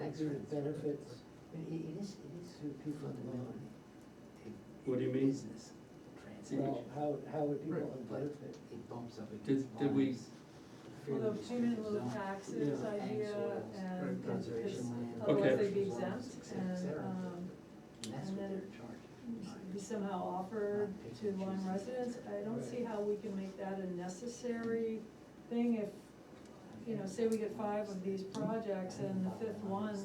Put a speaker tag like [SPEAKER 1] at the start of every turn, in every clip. [SPEAKER 1] exit benefits, I mean, it- it is, it is through people in the minority.
[SPEAKER 2] What do you mean?
[SPEAKER 3] Business
[SPEAKER 1] Well,
[SPEAKER 3] transaction.
[SPEAKER 1] how, how would people
[SPEAKER 3] Right.
[SPEAKER 1] benefit?
[SPEAKER 3] It bumps up against.
[SPEAKER 2] Did, did we,
[SPEAKER 3] lines,
[SPEAKER 4] Well,
[SPEAKER 3] fairly
[SPEAKER 4] the payment in lieu
[SPEAKER 3] restrictive
[SPEAKER 4] of
[SPEAKER 3] zone,
[SPEAKER 4] taxes
[SPEAKER 2] Yeah.
[SPEAKER 4] idea
[SPEAKER 3] Ag soils,
[SPEAKER 4] and
[SPEAKER 3] Conservation
[SPEAKER 4] it's-
[SPEAKER 3] land.
[SPEAKER 4] otherwise
[SPEAKER 2] Okay.
[SPEAKER 4] they'd be exempt
[SPEAKER 3] et cetera, et
[SPEAKER 4] and,
[SPEAKER 3] cetera.
[SPEAKER 4] um,
[SPEAKER 3] And that's
[SPEAKER 4] and
[SPEAKER 3] what
[SPEAKER 4] then-
[SPEAKER 3] they're
[SPEAKER 4] be
[SPEAKER 3] charged.
[SPEAKER 4] somehow offered to Lyme residents. I don't see how we can make that a necessary thing if, you know, say we get five of these projects and the fifth one,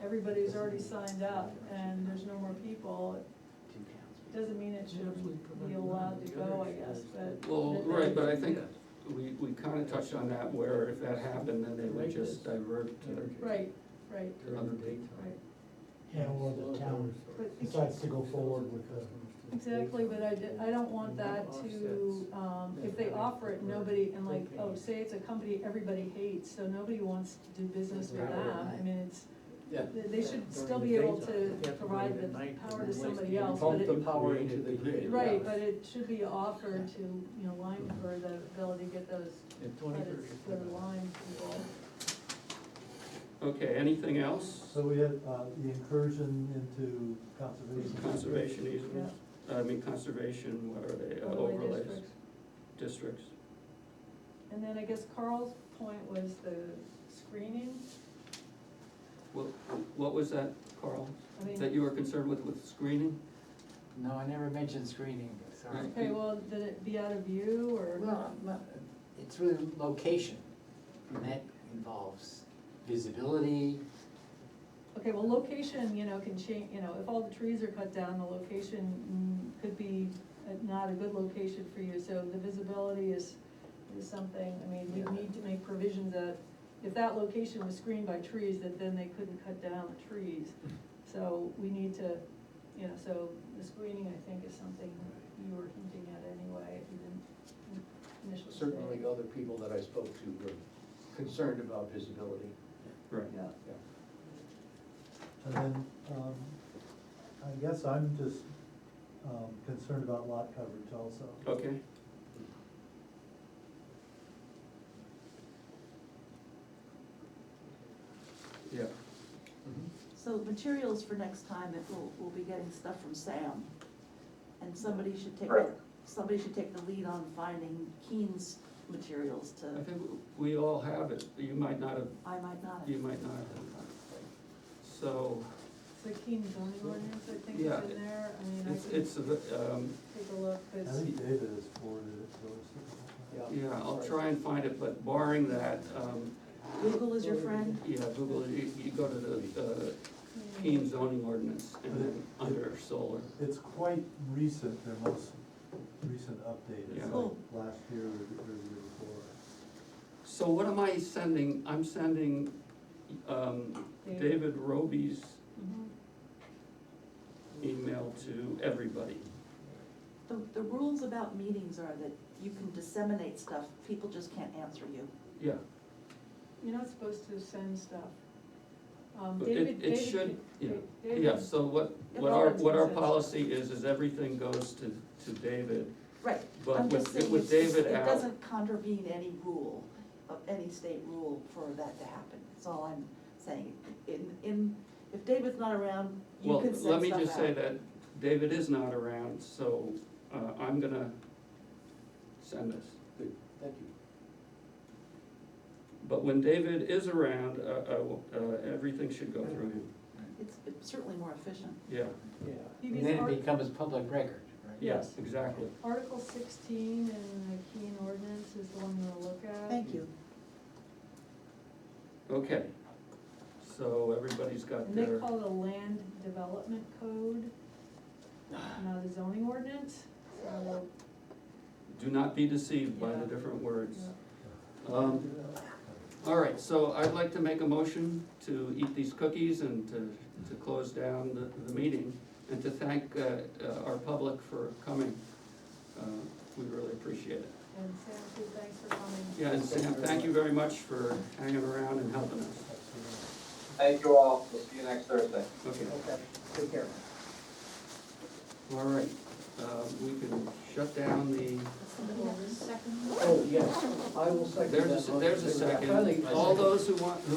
[SPEAKER 4] everybody's already signed up and there's no more people. It Doesn't mean it should be allowed to go, I guess, but.
[SPEAKER 2] well, right, but I think we, we kinda touched on that where if that happened, then they would just divert to.
[SPEAKER 4] Right, right,
[SPEAKER 3] During the daytime.
[SPEAKER 4] right.
[SPEAKER 5] Yeah, or the town
[SPEAKER 4] But-
[SPEAKER 5] decides to go forward with the,
[SPEAKER 4] Exactly, but I, di- I don't want that to, um, if they offer it, nobody, and like, oh, say it's a company everybody hates, so nobody wants to do business with them. I mean, it's,
[SPEAKER 6] Yeah.
[SPEAKER 4] they- they should still be able to provide the power to somebody else, but
[SPEAKER 6] Pump the
[SPEAKER 4] it,
[SPEAKER 6] power into the grid.
[SPEAKER 4] right, but it should be offered to, you know, Lyme for the ability to get those credits to the Lyme people.
[SPEAKER 2] Okay, anything else?
[SPEAKER 5] so we had, uh, the incursion into conservation.
[SPEAKER 2] Conservation easements, I mean, conservation, what are they, uh,
[SPEAKER 4] overlay
[SPEAKER 2] overlays,
[SPEAKER 4] districts.
[SPEAKER 2] districts?
[SPEAKER 4] And then I guess Carl's point was the screening,
[SPEAKER 2] What, what was that, Carl,
[SPEAKER 4] I mean.
[SPEAKER 2] that you were concerned with, with screening?
[SPEAKER 3] No, I never mentioned screening, sorry.
[SPEAKER 2] Right.
[SPEAKER 4] Okay, well, did it be out of view or,
[SPEAKER 3] Well, I'm not- it's really location, and that involves visibility,
[SPEAKER 4] okay, well, location, you know, can change, you know, if all the trees are cut down, the location mm, could be uh, not a good location for you, so the visibility is, is something, I mean, we
[SPEAKER 3] Yeah.
[SPEAKER 4] need to make provisions that if that location was screened by trees, that then they couldn't cut down the trees. So we need to, you know, so the screening, I think, is something you were hinting at anyway, if you didn't initially say.
[SPEAKER 6] Certainly, other people that I spoke to were concerned about visibility.
[SPEAKER 2] Right.
[SPEAKER 4] Yeah.
[SPEAKER 5] And then, um, I guess I'm just, um, concerned about lot coverage also.
[SPEAKER 2] Okay, yeah,
[SPEAKER 6] Mm-hmm.
[SPEAKER 7] So materials for next time, it will, we'll be getting stuff from Sam. And somebody should take, the- somebody should take the lead on finding Keen's materials to,
[SPEAKER 2] I think we all have it, you might not have,
[SPEAKER 7] I might not.
[SPEAKER 2] you might not have. So,
[SPEAKER 4] The Keene zoning ordinance, I think, is
[SPEAKER 2] Yeah.
[SPEAKER 4] in there, I mean, I
[SPEAKER 2] it's,
[SPEAKER 4] can
[SPEAKER 2] it's, a v- um,
[SPEAKER 4] take a look, but
[SPEAKER 5] I
[SPEAKER 4] it's,
[SPEAKER 5] think David has forwarded it to us.
[SPEAKER 2] Yeah, I'll try and find it, but barring that, um,
[SPEAKER 7] Google is your friend?
[SPEAKER 2] yeah, Google, you, you go to the, uh,
[SPEAKER 4] I mean,
[SPEAKER 2] Keene zoning ordinance and then under solar.
[SPEAKER 5] It's quite recent, their most recent update,
[SPEAKER 2] Yeah.
[SPEAKER 5] it's like
[SPEAKER 7] Cool.
[SPEAKER 5] last year or the or the year before.
[SPEAKER 2] So what am I sending? I'm sending, um, David Roby's
[SPEAKER 4] mhm.
[SPEAKER 2] email to everybody.
[SPEAKER 7] The, the rules about meetings are that you can disseminate stuff, people just can't answer you.
[SPEAKER 2] Yeah,
[SPEAKER 4] You're not supposed to send stuff. Um,
[SPEAKER 2] But
[SPEAKER 4] David,
[SPEAKER 2] it, it
[SPEAKER 4] David.
[SPEAKER 2] should, yeah,
[SPEAKER 4] David-
[SPEAKER 2] yeah, so what,
[SPEAKER 7] Yeah,
[SPEAKER 2] what our,
[SPEAKER 7] Robert's
[SPEAKER 2] what our
[SPEAKER 7] consensus.
[SPEAKER 2] policy is, is everything goes to, to David.
[SPEAKER 7] Right,
[SPEAKER 2] But
[SPEAKER 7] I'm just
[SPEAKER 2] with-
[SPEAKER 7] saying,
[SPEAKER 2] with
[SPEAKER 7] it's just-
[SPEAKER 2] David
[SPEAKER 7] it
[SPEAKER 2] out-
[SPEAKER 7] doesn't contravene any rule, of any state rule for that to happen, that's all I'm saying. In, in, if David's not around, you
[SPEAKER 2] Well,
[SPEAKER 7] can send stuff
[SPEAKER 2] let
[SPEAKER 7] out.
[SPEAKER 2] me just say that David is not around, so, uh, I'm gonna send this.
[SPEAKER 6] Good, thank you.
[SPEAKER 2] But when David is around, uh, uh, uh, everything should go through him,
[SPEAKER 7] It's it's certainly more efficient.
[SPEAKER 2] yeah,
[SPEAKER 6] Yeah.
[SPEAKER 4] Because
[SPEAKER 3] and then
[SPEAKER 4] Art-
[SPEAKER 3] it becomes public record, right?
[SPEAKER 2] yeah,
[SPEAKER 4] Yes.
[SPEAKER 2] exactly.
[SPEAKER 4] Article sixteen in the Keene ordinance is the one we'll look at.
[SPEAKER 7] you.
[SPEAKER 2] Okay, so everybody's got
[SPEAKER 4] And they
[SPEAKER 2] their,
[SPEAKER 4] call it a land development code, not a zoning ordinance, so,
[SPEAKER 2] do not be deceived by the
[SPEAKER 4] Yeah.
[SPEAKER 2] different words.
[SPEAKER 4] yeah.
[SPEAKER 2] Um, all right, so I'd like to make a motion to eat these cookies and to, to close down the, the meeting and to thank, uh, uh, our public for coming. Uh, We really appreciate it.
[SPEAKER 4] and Sam, too, thanks for coming.
[SPEAKER 2] Yeah, and Sam, thank you very much for hanging around and helping us.
[SPEAKER 5] Absolutely.
[SPEAKER 8] Thank you all. We'll see you next Thursday.
[SPEAKER 2] Okay,
[SPEAKER 6] Okay, take care.
[SPEAKER 2] all right, uh, we can shut down the,
[SPEAKER 7] Somebody have a second?
[SPEAKER 6] Oh, yes, I will second that.
[SPEAKER 2] there's a, there's a
[SPEAKER 6] motion.
[SPEAKER 2] second.
[SPEAKER 6] Finally, I
[SPEAKER 2] All
[SPEAKER 6] second.
[SPEAKER 2] those who want, who